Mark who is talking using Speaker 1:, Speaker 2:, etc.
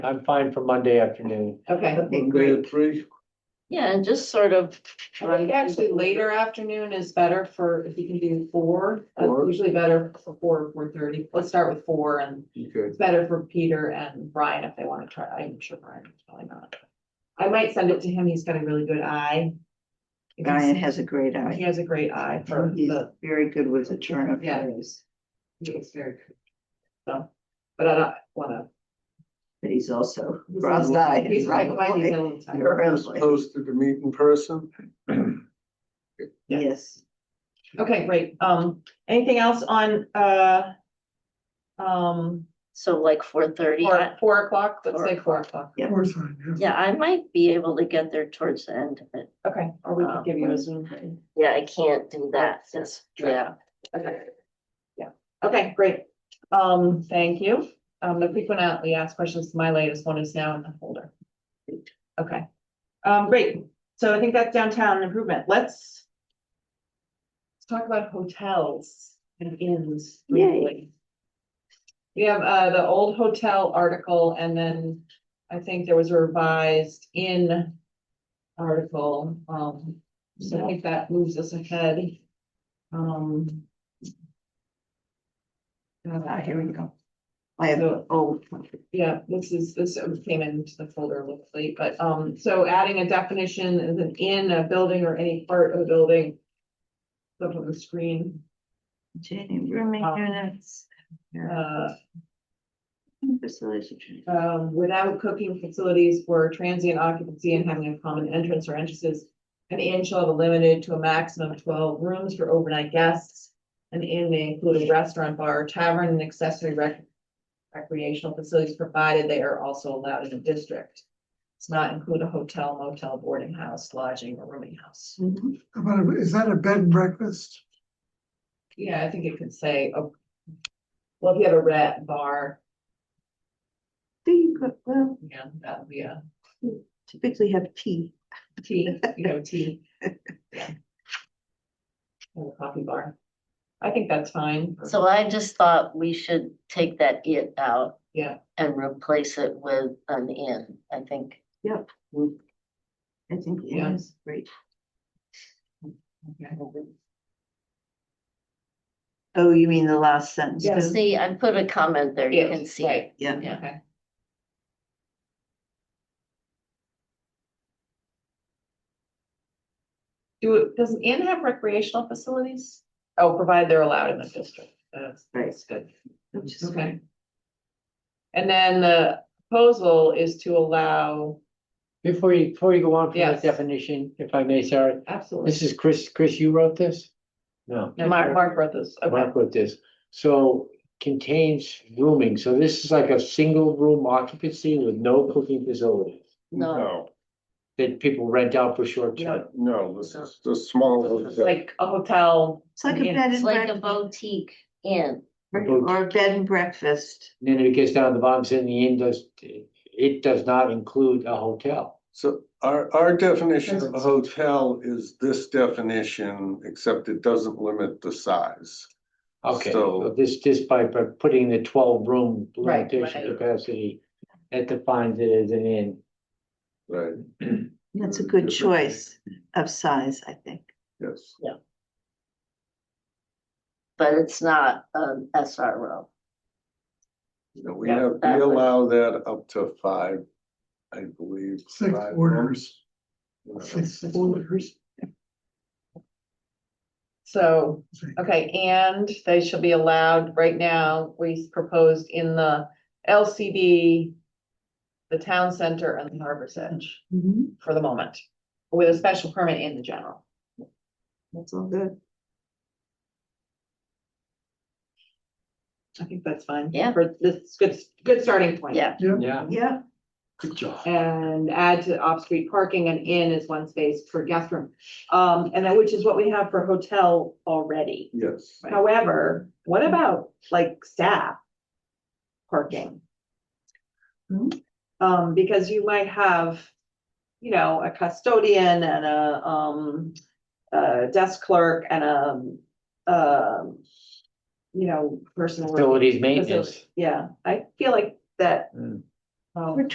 Speaker 1: I'm fine for Monday afternoon.
Speaker 2: Okay,
Speaker 3: Okay,
Speaker 4: Monday
Speaker 3: great.
Speaker 4: at three,
Speaker 5: Yeah, and just sort of.
Speaker 2: I think actually later afternoon is better for, if you can do four, that's
Speaker 4: Four.
Speaker 2: usually better for four, four thirty, let's start with four and
Speaker 4: okay,
Speaker 2: it's better for Peter and Brian if they wanna try, I'm sure Brian, probably not. I might send it to him, he's got a really good eye. If he's-
Speaker 3: Brian has a great eye.
Speaker 2: He has a great eye for
Speaker 3: He's
Speaker 2: the,
Speaker 3: very good with the turn of
Speaker 2: Yeah.
Speaker 3: phrase,
Speaker 2: he looks very good. So, but I don't wanna.
Speaker 3: but he's also
Speaker 2: he's
Speaker 3: cross-eyed.
Speaker 2: He's
Speaker 3: right
Speaker 2: like, why he's
Speaker 3: away.
Speaker 2: on time. Oh,
Speaker 3: Early.
Speaker 4: posted to meet in person.
Speaker 3: Yes,
Speaker 2: Okay, great, um, anything else on, uh. Um,
Speaker 5: So like four thirty,
Speaker 2: four, four o'clock, let's
Speaker 5: Four
Speaker 2: say four o'clock,
Speaker 3: Yeah.
Speaker 4: course, I
Speaker 5: yeah, I might be able to get there towards the end of it.
Speaker 2: okay, or we can
Speaker 5: Um,
Speaker 2: give you a Zoom. thing.
Speaker 5: Yeah, I can't do that, just, yeah.
Speaker 2: Okay. Yeah, okay, great, um, thank you, um, the frequent out, we asked questions, my latest one is now in the folder. Okay, um, great, so I think that's downtown improvement, let's. Let's talk about hotels and inns
Speaker 3: Yay.
Speaker 2: briefly. We have, uh, the old hotel article and then I think there was a revised in article, um, so I think that moves us ahead. Um.
Speaker 3: ah,
Speaker 2: uh,
Speaker 3: here we go. I have,
Speaker 2: So-
Speaker 3: oh,
Speaker 2: yeah, this is, this came into the folder a little late, but, um, so adding a definition as an in a building or any part of a building. Look on the screen,
Speaker 3: Jenny, rooming
Speaker 2: Um,
Speaker 3: units. yeah,
Speaker 2: uh,
Speaker 3: Facilities. of training.
Speaker 2: um, without cooking facilities for transient occupancy and having a common entrance or entrances. An inn shall be limited to a maximum of twelve rooms for overnight guests. An inn may include a restaurant, bar, tavern, and accessory rec- recreational facilities, provided they are also allowed in the district. Does not include a hotel, motel, boarding house, lodging, or rooming house.
Speaker 3: Mhm.
Speaker 6: About, is that a bed and breakfast?
Speaker 2: Yeah, I think it could say, oh, well, if you have a rat bar,
Speaker 3: Do you, go- well,
Speaker 2: yeah, that would be a.
Speaker 3: typically have tea.
Speaker 2: Tea, you know, tea. Yeah. And a coffee bar. I think that's fine.
Speaker 5: So I just thought we should take that it out
Speaker 2: Yeah,
Speaker 5: and replace it with an in, I think.
Speaker 3: I think,
Speaker 2: Yeah.
Speaker 3: yeah, it's great.
Speaker 2: okay.
Speaker 3: Oh, you mean the last sentence?
Speaker 2: Yeah.
Speaker 3: too?
Speaker 5: See, I put a comment there, you
Speaker 2: Yeah,
Speaker 5: can see it.
Speaker 2: right,
Speaker 3: Yeah.
Speaker 5: Yeah.
Speaker 2: Okay. Do, it- does an inn have recreational facilities? Oh, provided they're allowed in the district. That's,
Speaker 3: Right.
Speaker 2: that's good.
Speaker 3: which is
Speaker 2: Okay. And then the proposal is to allow,
Speaker 1: Before you, before you go on for
Speaker 2: Yes.
Speaker 1: that definition, if I may, Sarah,
Speaker 2: absolutely.
Speaker 1: this is Chris, Chris, you wrote this? No.
Speaker 2: No, Mark, Mark wrote this, okay,
Speaker 1: Mark wrote this. So contains rooming. So this is like a single room occupancy with no cooking facilities
Speaker 5: No,
Speaker 1: that people rent out for short term.
Speaker 4: No, this is the small hotel.
Speaker 2: like a hotel.
Speaker 3: It's like a
Speaker 2: Yeah,
Speaker 3: bed
Speaker 5: it's
Speaker 3: and
Speaker 5: like a
Speaker 3: breakfast,
Speaker 5: boutique in.
Speaker 1: boat.
Speaker 3: or a bed and breakfast.
Speaker 1: And then it gets down to the bottom saying the inn does, it does not include a hotel.
Speaker 4: So our, our definition of a hotel is this definition, except it doesn't limit the size.
Speaker 1: Okay,
Speaker 4: So-
Speaker 1: so this, just by by putting the twelve room
Speaker 2: Right,
Speaker 1: limitation
Speaker 2: right.
Speaker 1: capacity, that defines it as an inn.
Speaker 4: Right,
Speaker 3: That's
Speaker 2: Mm-hmm.
Speaker 3: a good
Speaker 4: Different.
Speaker 3: choice of size, I think.
Speaker 4: yes.
Speaker 5: But it's not an SRO.
Speaker 4: No, we
Speaker 2: Yeah,
Speaker 4: have, we
Speaker 5: that would-
Speaker 4: allow that up to five, I believe.
Speaker 6: Six
Speaker 4: five
Speaker 6: orders,
Speaker 4: rooms.
Speaker 6: six
Speaker 3: Mm-hmm.
Speaker 6: orders.
Speaker 2: So, okay, and they shall be allowed, right now, we proposed in the LCD. The town center and the harbor's edge
Speaker 3: Mhm.
Speaker 2: for the moment, with a special permit in the general.
Speaker 3: That's all good.
Speaker 2: I think that's fine.
Speaker 5: Yeah.
Speaker 2: For this, good, good starting point.
Speaker 5: Yeah.
Speaker 1: Yeah.
Speaker 3: Yeah,
Speaker 1: Good job.
Speaker 2: And add to off-street parking and in is one space per guest room. Um, and then, which is what we have for hotel already.
Speaker 4: Yes,
Speaker 2: However, what about like staff parking?
Speaker 3: Hmm.
Speaker 2: Um, because you might have, you know, a custodian and a, um, a desk clerk and a, um, you know, person. working-
Speaker 1: Facilities maintenance.
Speaker 2: Yeah, I feel like that.
Speaker 1: Hmm.
Speaker 2: um,
Speaker 3: We're